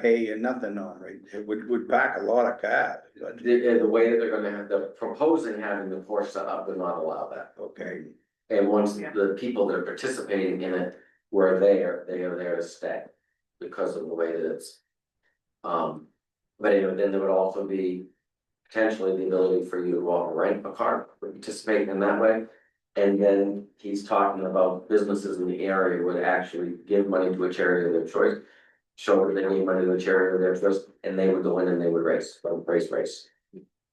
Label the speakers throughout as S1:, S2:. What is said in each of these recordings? S1: pay and nothing on, right? It would, would back a lot of cars.
S2: The, the way that they're gonna have, they're proposing having the course set up would not allow that.
S1: Okay,
S2: And once
S3: Yeah.
S2: the people that are participating in it were there, they are there to stay because of the way that it's. Um, but anyway, then there would also be potentially the ability for you to go out and rent a car, participate in that way. And then he's talking about businesses in the area would actually give money to a charity of their choice. Show that they need money to a charity of their choice, and they would go in and they would race, race, race.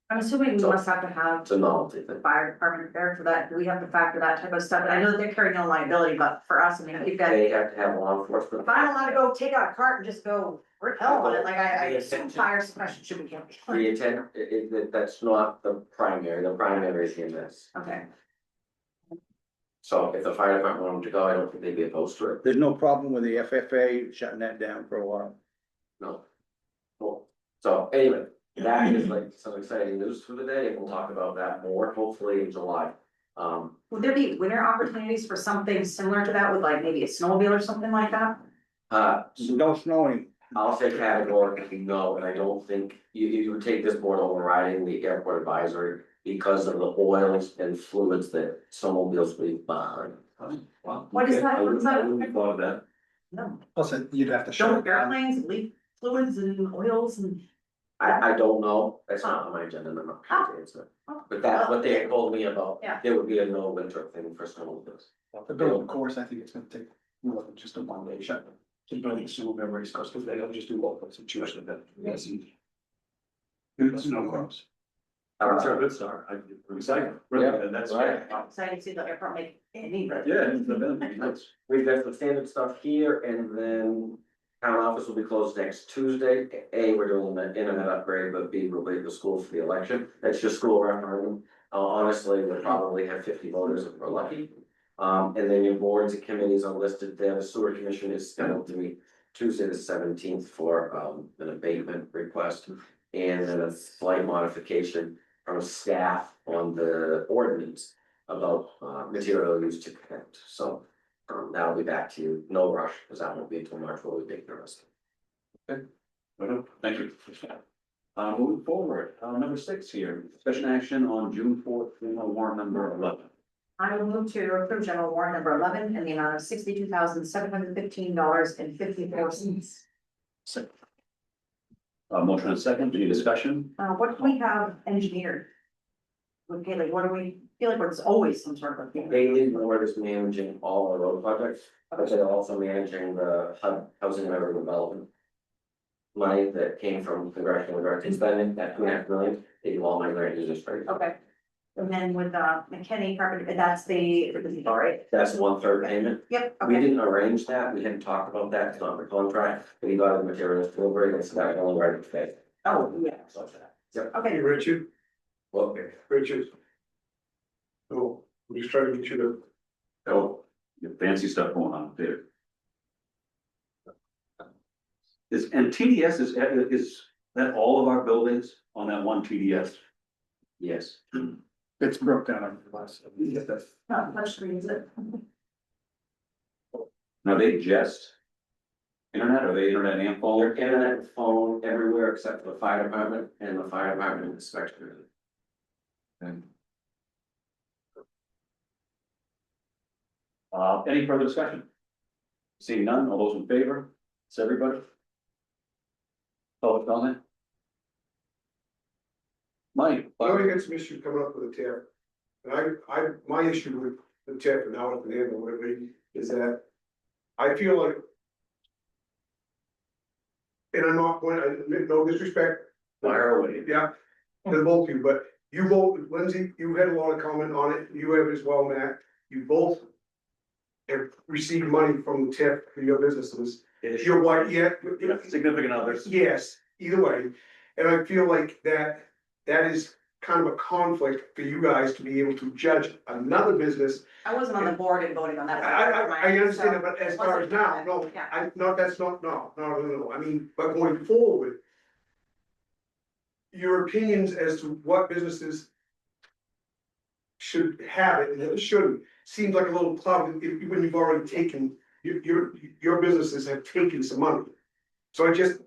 S3: I'm assuming we
S2: So-
S3: must have to have
S2: It's a novelty thing.
S3: the fire department there for that, do we have to factor that type of stuff, and I know that they're carrying no liability, but for us, I mean, if you guys.
S2: They have to have law enforcement.
S3: If I'm allowed to go take out a cart and just go, rip hell on it, like I, I assume fire suppression should be kept.
S2: The intent, i- i- that- that's not the primary, the primary is EMS.
S3: Okay,
S2: So if the fire department wanted to go, I don't think they'd be opposed to it,
S1: there's no problem with the FFA shutting that down for a while.
S2: no. Cool, so anyway, that is like some exciting news for the day, and we'll talk about that more hopefully in July. Um,
S3: would there be winter opportunities for something similar to that, with like maybe a snowmobile or something like that?
S2: uh,
S1: No snowing,
S2: I'll say categorically no, and I don't think you you would take this board overriding the airport advisory because of the oils and fluids that snowmobiles leave behind.
S3: What is that? What's that?
S2: I wouldn't have thought of that.
S3: No,
S4: Plus, it- you'd have to shut it
S3: don't
S4: down.
S3: airplanes leak fluids and oils and,
S2: I, I don't know, that's not on my agenda, and I'm not going to answer.
S3: Oh.
S2: But that's what they had told me about,
S3: Yeah.
S2: there would be a no winter thing for snowmobiles.
S4: The building, of course, I think it's gonna take more than just a one day shut. To build a sewer memory source, because they don't just do local situation that. Yes. It's no cross.
S2: Uh,
S4: good start, I,
S2: excited.
S4: really, and that's.
S2: Right.
S3: I'm excited to see the airport make any.
S4: Yeah, it's the building.
S2: We've got the standard stuff here, and then town office will be closed next Tuesday. A, we're doing the internet upgrade, but B, we'll leave the school for the election, that's your school referendum. Uh, honestly, we'll probably have fifty voters if we're lucky. Um, and then your boards and committees are listed there, the sewer commission is scheduled to meet Tuesday the seventeenth for, um, an abatement request. And then a slight modification from staff on the ordinance about, uh, material used to connect, so. Um, that'll be back to you, no rush, because that won't be until March, where we make the rest.
S4: Thank you. Uh, moving forward, uh, number six here, discussion action on June fourth, warrant number eleven.
S3: I will move to approve general warrant number eleven in the amount of sixty-two thousand, seven hundred fifteen dollars and fifty-four cents.
S4: Second. Uh, motion and second, any discussion?
S3: Uh, what do we have engineered? Okay, like, what do we, feel like there's always some sort of. a thing.
S2: Haley Ward is managing all our road projects, but they're also managing the HUD housing and urban development. Money that came from congressional directed spending, that two and a half million, they do all my grant users for you.
S3: Okay. And then with, uh, McKinney carpenter, that's the, all right,
S2: That's one third payment,
S3: yep,
S2: we
S3: okay,
S2: didn't arrange that, we hadn't talked about that, it's not in the contract, but he got the materials delivered, and so that only right to pay.
S3: oh, yeah,
S2: So,
S3: okay,
S5: Richard,
S2: well,
S5: Richard. Oh, we just trying to get you to,
S4: Oh, you have fancy stuff going on there. Is, and TDS is, is that all of our buildings on that one TDS?
S2: yes,
S4: It's broke down over the last.
S3: not much screen, is it?
S4: Now they just. Internet, are they internet and
S2: Your
S4: phone?
S2: internet, phone, everywhere except for the fire department and the fire department inspector.
S4: Uh, any further discussion? Seeing none, all those in favor, it's everybody? Public comment? Mike?
S5: I already got some issue coming up with the tariff. And I, I, my issue with the tariff and how it can handle whatever is that I feel like. And I'm not going, I admit no disrespect,
S4: Fire away.
S5: yeah, to both of you, but you both, Lindsay, you had a lot of comment on it, you have as well, Matt, you both. Have received money from the tip for your businesses, your wife, yeah,
S4: Yeah, Significant others.
S5: Yes, either way, and I feel like that, that is kind of a conflict for you guys to be able to judge another business.
S3: I wasn't on the board and voting on
S5: I,
S3: that.
S5: I, I understand it, but as
S3: so-
S5: far as now, no,
S3: Yeah.
S5: I, no, that's not, no, no, no, no, I mean, but going forward. Your opinions as to what businesses. Should have it and shouldn't, seems like a little cloud, if, when you've already taken, your, your, your businesses have taken some money. So I just,